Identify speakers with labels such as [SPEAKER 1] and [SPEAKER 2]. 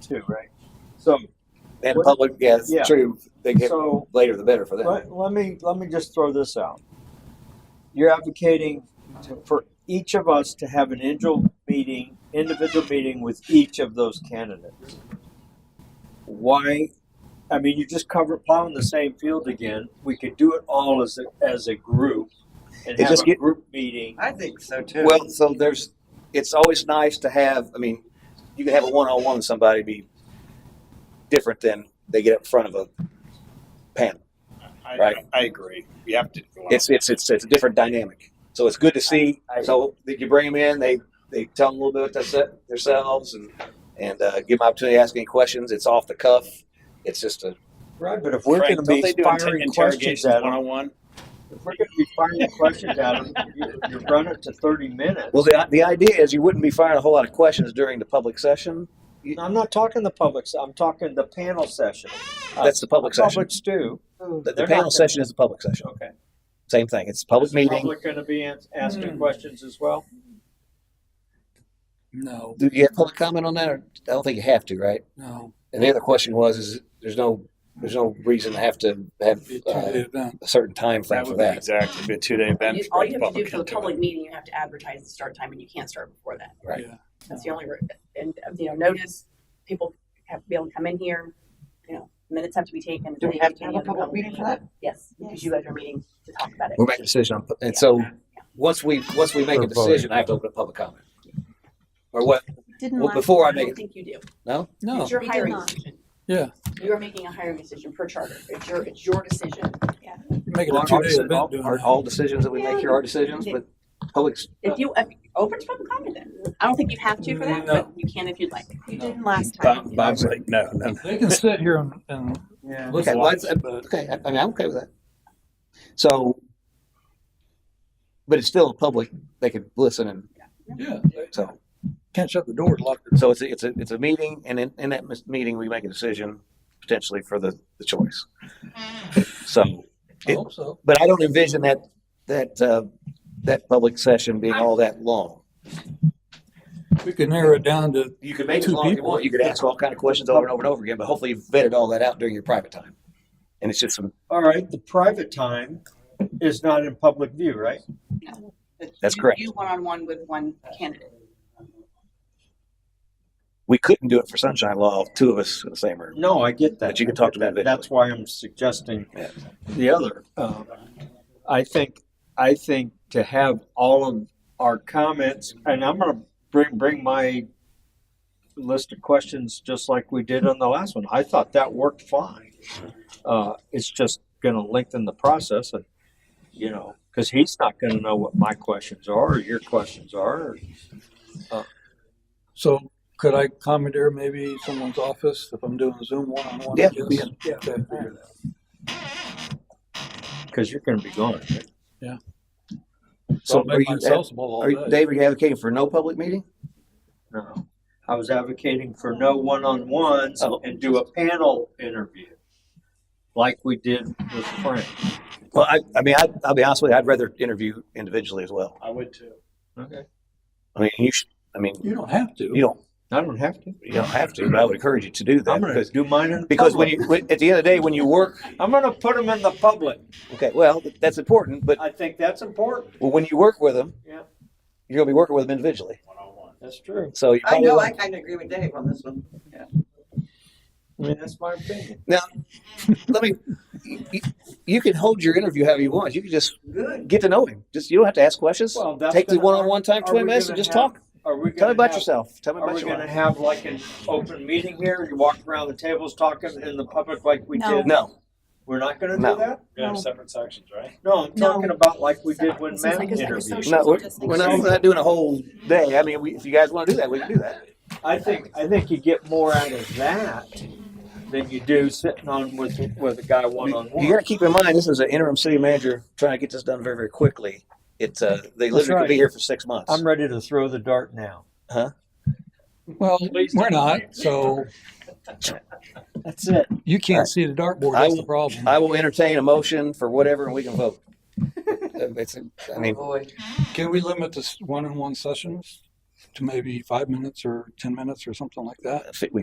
[SPEAKER 1] too, right? So
[SPEAKER 2] And
[SPEAKER 1] What-
[SPEAKER 2] public, yeah, it's
[SPEAKER 1] yeah.
[SPEAKER 2] true. They get
[SPEAKER 1] So-
[SPEAKER 2] later the better for them.
[SPEAKER 1] let, let me let me just throw this out. You're advocating to, for each of us to have an individual meeting, individual meeting with each of those candidates. Why? I mean, you just cover plowing the same field again. We could do it all as a, as a group and
[SPEAKER 2] It
[SPEAKER 1] have
[SPEAKER 2] just
[SPEAKER 1] a
[SPEAKER 2] get-
[SPEAKER 1] group meeting.
[SPEAKER 3] I think so too.
[SPEAKER 2] Well, so there's, it's always nice to have, I mean, you can have a one-on-one with somebody be different than they get up in front of a panel.
[SPEAKER 4] I,
[SPEAKER 2] Right.
[SPEAKER 4] I agree. You have to. go out.
[SPEAKER 2] It's, it's, it's, it's a different dynamic. So it's good to see.
[SPEAKER 1] I- I-
[SPEAKER 2] So that you bring them in, they, they tell them a little bit about theirse- themselves and, and, uh, give them opportunity to ask any questions. It's off the cuff. It's just a,
[SPEAKER 1] Right, but if we're going to
[SPEAKER 4] Frank, don't
[SPEAKER 1] be
[SPEAKER 4] they do inter-
[SPEAKER 1] firing
[SPEAKER 4] interrogations
[SPEAKER 1] questions at them,
[SPEAKER 4] one-on-one?
[SPEAKER 1] if we're going to be firing questions at them, you, you run it to thirty minutes.
[SPEAKER 2] well, the, the idea is you wouldn't be firing a whole lot of questions during the public session.
[SPEAKER 1] No, I'm not talking the public. se- I'm talking the panel session. Uh,
[SPEAKER 2] That's the public session.
[SPEAKER 1] Publics do.
[SPEAKER 2] The, the
[SPEAKER 1] They're
[SPEAKER 2] panel
[SPEAKER 1] not-
[SPEAKER 2] session is the public session.
[SPEAKER 1] Okay.
[SPEAKER 2] Same thing. It's a public
[SPEAKER 1] Is the
[SPEAKER 2] meeting.
[SPEAKER 1] Public going to be ans- asking questions as well.
[SPEAKER 5] No,
[SPEAKER 2] Do you have public comment on that? Or I don't think you have to, right?
[SPEAKER 5] no.
[SPEAKER 2] And the other question was, is there's no there's no reason to have to have
[SPEAKER 5] It's
[SPEAKER 2] uh,
[SPEAKER 5] usually done.
[SPEAKER 2] a certain time frame
[SPEAKER 4] That
[SPEAKER 2] for
[SPEAKER 4] would be
[SPEAKER 2] that.
[SPEAKER 4] exactly. Be a two-day event.
[SPEAKER 6] You- All you have to do for the public meeting, you have to advertise the start time and you can't start before that.
[SPEAKER 2] Right.
[SPEAKER 5] Yeah.
[SPEAKER 6] That's the only, re- and, uh, you know, notice, people have to be able to come in here, you know, minutes have to be taken.
[SPEAKER 3] Do we
[SPEAKER 6] They
[SPEAKER 3] have to have
[SPEAKER 6] can
[SPEAKER 3] a
[SPEAKER 6] have the
[SPEAKER 3] public meeting for that?
[SPEAKER 6] Yes, because you guys are meeting to talk about it.
[SPEAKER 2] We're making a decision on, and so once we once we make a decision, I have to open a public comment. Or what?
[SPEAKER 7] Didn't
[SPEAKER 2] Well,
[SPEAKER 7] last.
[SPEAKER 2] before I
[SPEAKER 6] I
[SPEAKER 2] make
[SPEAKER 6] don't
[SPEAKER 2] it,
[SPEAKER 6] think you do.
[SPEAKER 2] no.
[SPEAKER 5] No,
[SPEAKER 6] It's your
[SPEAKER 7] We did
[SPEAKER 6] hiring
[SPEAKER 7] not.
[SPEAKER 6] decision.
[SPEAKER 5] yeah.
[SPEAKER 6] You are making a hiring decision per charter. It's your, it's your decision.
[SPEAKER 5] You make it
[SPEAKER 2] Well,
[SPEAKER 5] a
[SPEAKER 2] aren't
[SPEAKER 5] two day
[SPEAKER 2] all-
[SPEAKER 5] event doing
[SPEAKER 2] aren't
[SPEAKER 5] that.
[SPEAKER 2] all decisions that we make here are decisions, but public.
[SPEAKER 6] If you, if, open to public comment then. I don't think you have to for that, but you can if you'd like.
[SPEAKER 7] You didn't last time.
[SPEAKER 4] Bob, Bob's like, no, no.
[SPEAKER 5] They can sit here and, and
[SPEAKER 1] Yeah.
[SPEAKER 2] Okay,
[SPEAKER 5] listen to
[SPEAKER 2] well,
[SPEAKER 5] us,
[SPEAKER 2] it's-
[SPEAKER 5] but
[SPEAKER 2] Okay, I, I mean I'm okay with that. So, but it's still public. They could listen and
[SPEAKER 5] yeah, they
[SPEAKER 2] so.
[SPEAKER 5] can't shut the doors, lock their
[SPEAKER 2] So it's a, it's a, it's a meeting and in, in that mis- meeting, we make a decision potentially for the, the choice. So,
[SPEAKER 5] I hope so.
[SPEAKER 2] but I don't envision that, that, uh, that public session being all that long.
[SPEAKER 5] We could narrow it down to,
[SPEAKER 2] You could make it
[SPEAKER 5] Two
[SPEAKER 2] long if you
[SPEAKER 5] people.
[SPEAKER 2] want. You could ask all kind of questions over and over and over again, but hopefully you've vetted all that out during your private time. And it's just some,
[SPEAKER 1] All right. The private time is not in public view, right?
[SPEAKER 2] That's
[SPEAKER 6] You-
[SPEAKER 2] correct.
[SPEAKER 6] You one-on-one with one candidate.
[SPEAKER 2] we couldn't do it for sunshine law, two of us in the same room.
[SPEAKER 1] No, I get that.
[SPEAKER 2] But you can talk to them individually.
[SPEAKER 1] That's why I'm suggesting
[SPEAKER 2] Yeah.
[SPEAKER 1] the other. Um, I think I think to have all of our comments, and I'm going to bring bring my list of questions just like we did on the last one. I thought that worked fine. Uh, it's just going to lengthen the process, and you know, because he's not going to know what my questions are or your questions are.
[SPEAKER 5] so could I commandeer maybe someone's office if I'm doing Zoom one on one?
[SPEAKER 2] Yeah, yeah.
[SPEAKER 5] Yeah.
[SPEAKER 1] Because you're going to be gone. right?
[SPEAKER 5] So
[SPEAKER 2] So
[SPEAKER 5] I'll
[SPEAKER 2] are
[SPEAKER 5] make
[SPEAKER 2] you,
[SPEAKER 5] myself
[SPEAKER 2] are you,
[SPEAKER 5] all day.
[SPEAKER 2] Dave, are you advocating for no public meeting?
[SPEAKER 1] No, I was advocating for no one-on-ones
[SPEAKER 2] Oh.
[SPEAKER 1] and do a panel interview like we did with Frank.
[SPEAKER 2] Well, I, I mean, I, I'll be honest with you, I'd rather interview individually as well.
[SPEAKER 4] I would too.
[SPEAKER 1] Okay.
[SPEAKER 2] I mean, you should, I mean,
[SPEAKER 5] You don't have to.
[SPEAKER 2] you don't,
[SPEAKER 1] I don't have to.
[SPEAKER 2] You don't have to, but I would encourage you to do that
[SPEAKER 1] I'm going to
[SPEAKER 2] because,
[SPEAKER 1] do mine in
[SPEAKER 2] because when
[SPEAKER 1] public.
[SPEAKER 2] you, when- at the end of the day, when you work,
[SPEAKER 1] I'm going to put them in the public.
[SPEAKER 2] okay, well, that's important, but
[SPEAKER 1] I think that's important.
[SPEAKER 2] well, when you work with them,
[SPEAKER 1] Yeah.
[SPEAKER 2] you're gonna be working with them individually.
[SPEAKER 1] That's true.
[SPEAKER 2] So you
[SPEAKER 3] I
[SPEAKER 2] probably,
[SPEAKER 3] know, I
[SPEAKER 2] want-
[SPEAKER 3] kind of agree with Dave on this one.
[SPEAKER 1] I mean, that's my opinion.
[SPEAKER 2] let me, you, you can hold your interview however you want. You can just
[SPEAKER 3] Good.
[SPEAKER 2] get to know him. Just, you don't have to ask questions.
[SPEAKER 1] Well, that's
[SPEAKER 2] Take the
[SPEAKER 1] gonna-
[SPEAKER 2] one-on-one time,
[SPEAKER 1] are
[SPEAKER 2] twenty
[SPEAKER 1] we
[SPEAKER 2] minutes and
[SPEAKER 1] gonna
[SPEAKER 2] just
[SPEAKER 1] have-
[SPEAKER 2] talk.
[SPEAKER 1] Are we
[SPEAKER 2] Tell me
[SPEAKER 1] going to
[SPEAKER 2] about
[SPEAKER 1] have,
[SPEAKER 2] yourself. Tell me
[SPEAKER 1] are
[SPEAKER 2] about
[SPEAKER 1] we
[SPEAKER 2] your
[SPEAKER 1] going to
[SPEAKER 2] life.
[SPEAKER 1] have like an open meeting here? You walk around the tables talking in the public like we
[SPEAKER 7] No.
[SPEAKER 1] did?
[SPEAKER 2] No,
[SPEAKER 1] We're not going to
[SPEAKER 2] No.
[SPEAKER 1] do that?
[SPEAKER 4] You have
[SPEAKER 7] No.
[SPEAKER 4] separate sections, right?
[SPEAKER 1] No, I'm
[SPEAKER 7] No.
[SPEAKER 1] talking about like we did when
[SPEAKER 7] This is
[SPEAKER 1] Matt
[SPEAKER 7] like a
[SPEAKER 1] interviewed.
[SPEAKER 7] psychosocial-
[SPEAKER 2] no, we're,
[SPEAKER 7] Just
[SPEAKER 2] we're not,
[SPEAKER 7] like-
[SPEAKER 2] we're not doing a whole day. I mean, we, if you guys wanna do that, we can do that.
[SPEAKER 1] I think, I think you get more out of that than you do sitting on with, with a guy
[SPEAKER 2] You
[SPEAKER 1] one-on-one.
[SPEAKER 2] gotta keep in mind, this is an interim city manager trying to get this done very, very quickly. It's, uh, they
[SPEAKER 1] That's
[SPEAKER 2] literally
[SPEAKER 1] right.
[SPEAKER 2] could be here for six months.
[SPEAKER 1] I'm ready to throw the dart now.
[SPEAKER 5] Well, we're not, so
[SPEAKER 1] That's it.
[SPEAKER 5] you can't see the dartboard.
[SPEAKER 2] I
[SPEAKER 5] That's
[SPEAKER 2] will-
[SPEAKER 5] the problem.
[SPEAKER 2] I will entertain a motion for whatever and we can vote. It's, I mean,
[SPEAKER 3] Boy.
[SPEAKER 5] Can we limit this one-on-one sessions to maybe five minutes or 10 minutes or something like that?
[SPEAKER 2] we